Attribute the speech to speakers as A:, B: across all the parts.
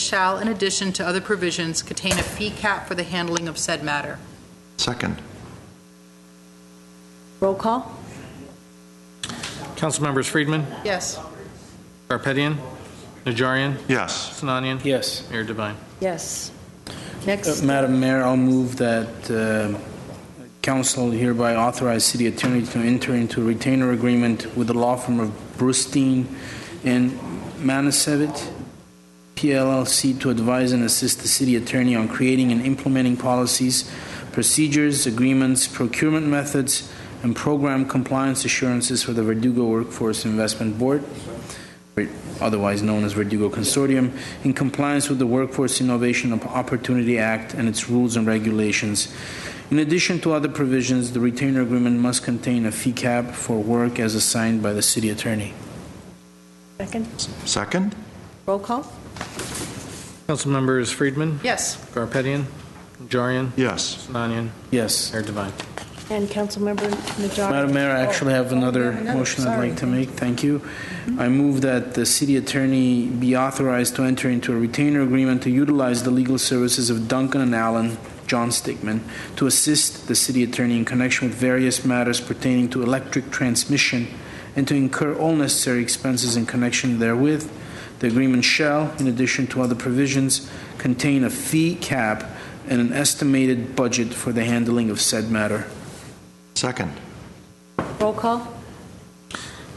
A: shall, in addition to other provisions, contain a fee cap for the handling of said matter.
B: Second.
C: Roll call?
D: Councilmembers Friedman,
A: Yes.
D: Garpetian, Najarian,
B: Yes.
D: Sinanian.
E: Yes.
D: Mayor Devine.
C: Yes.
E: Uh,
C: Next,
E: Madam Mayor, I'll move that uh, council hereby authorize city attorney to enter into a retainer agreement with the law firm of Brustein and Manasevit, PLLC, to advise and assist the city attorney on creating and implementing policies, procedures, agreements, procurement methods, and program compliance assurances for the Verdugo Workforce Investment Board, otherwise known as Verdugo Consortium, in compliance with the Workforce Innovation Opportunity Act and its rules and regulations. In addition to other provisions, the retainer agreement must contain a fee cap for work as assigned by the city attorney.
C: second,
B: Second?
C: roll call?
D: Councilmembers Friedman,
A: Yes.
D: Garpetian, Najarian,
B: Yes.
D: Sinanian.
E: Yes.
D: Mayor Devine.
C: And Councilmember Najarian?
E: Madam Mayor, I actually have another motion I'd like to make. Thank you. I move that the city attorney be authorized to enter into a retainer agreement to utilize the legal services of Duncan and Allen, John Stickman, to assist the city attorney in connection with various matters pertaining to electric transmission and to incur all necessary expenses in connection therewith. The agreement shall, in addition to other provisions, contain a fee cap and an estimated budget for the handling of said matter.
B: Second.
C: Roll call?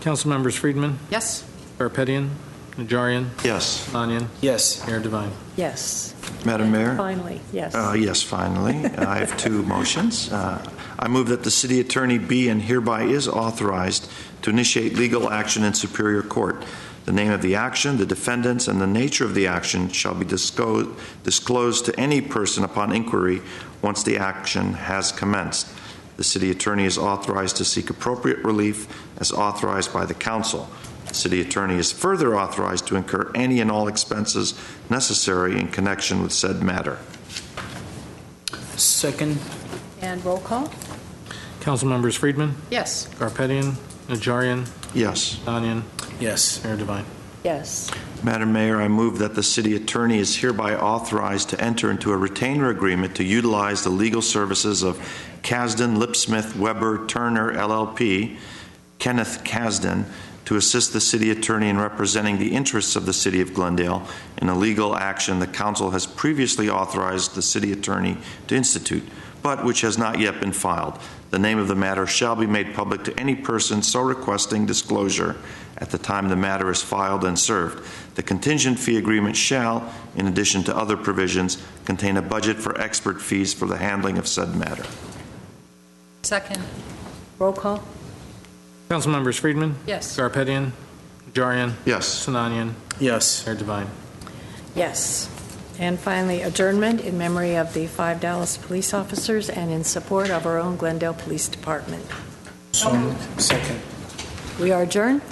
D: Councilmembers Friedman,
A: Yes.
D: Garpetian, Najarian,
B: Yes.
D: Sinanian.
E: Yes.
D: Mayor Devine.
C: Yes.
B: Madam Mayor?
C: Finally, yes.
B: Uh, Yes, finally. Uh, I have two motions. Uh, I move that the city attorney be and hereby is authorized to initiate legal action in Superior Court. The name of the action, the defendants, and the nature of the action shall be disco- disclosed to any person upon inquiry once the action has commenced. The city attorney is authorized to seek appropriate relief as authorized by the council. The city attorney is further authorized to incur any and all expenses necessary in connection with said matter.
E: Second.
C: And roll call?
D: Councilmembers Friedman,
A: Yes.
D: Garpetian, Najarian,
B: Yes.
D: Sinanian.
E: Yes.
D: Mayor Devine.
C: Yes.
B: Madam Mayor, I move that the city attorney is hereby authorized to enter into a retainer agreement to utilize the legal services of Kasdan Lipsmith Weber Turner LLP, Kenneth Kasdan, to assist the city attorney in representing the interests of the city of Glendale in a legal action the council has previously authorized the city attorney to institute, but which has not yet been filed. The name of the matter shall be made public to any person so requesting disclosure at the time the matter is filed and served. The contingent fee agreement shall, in addition to other provisions, contain a budget for expert fees for the handling of said matter.
A: Second.
C: Roll call?
D: Councilmembers Friedman,
A: Yes.
D: Garpetian, Najarian,
B: Yes.
D: Sinanian.
E: Yes.
D: Mayor Devine.
C: Yes. And finally, adjournment in memory of the five Dallas police officers and in support of our own Glendale Police Department.
E: So moved. Second.
C: We are adjourned.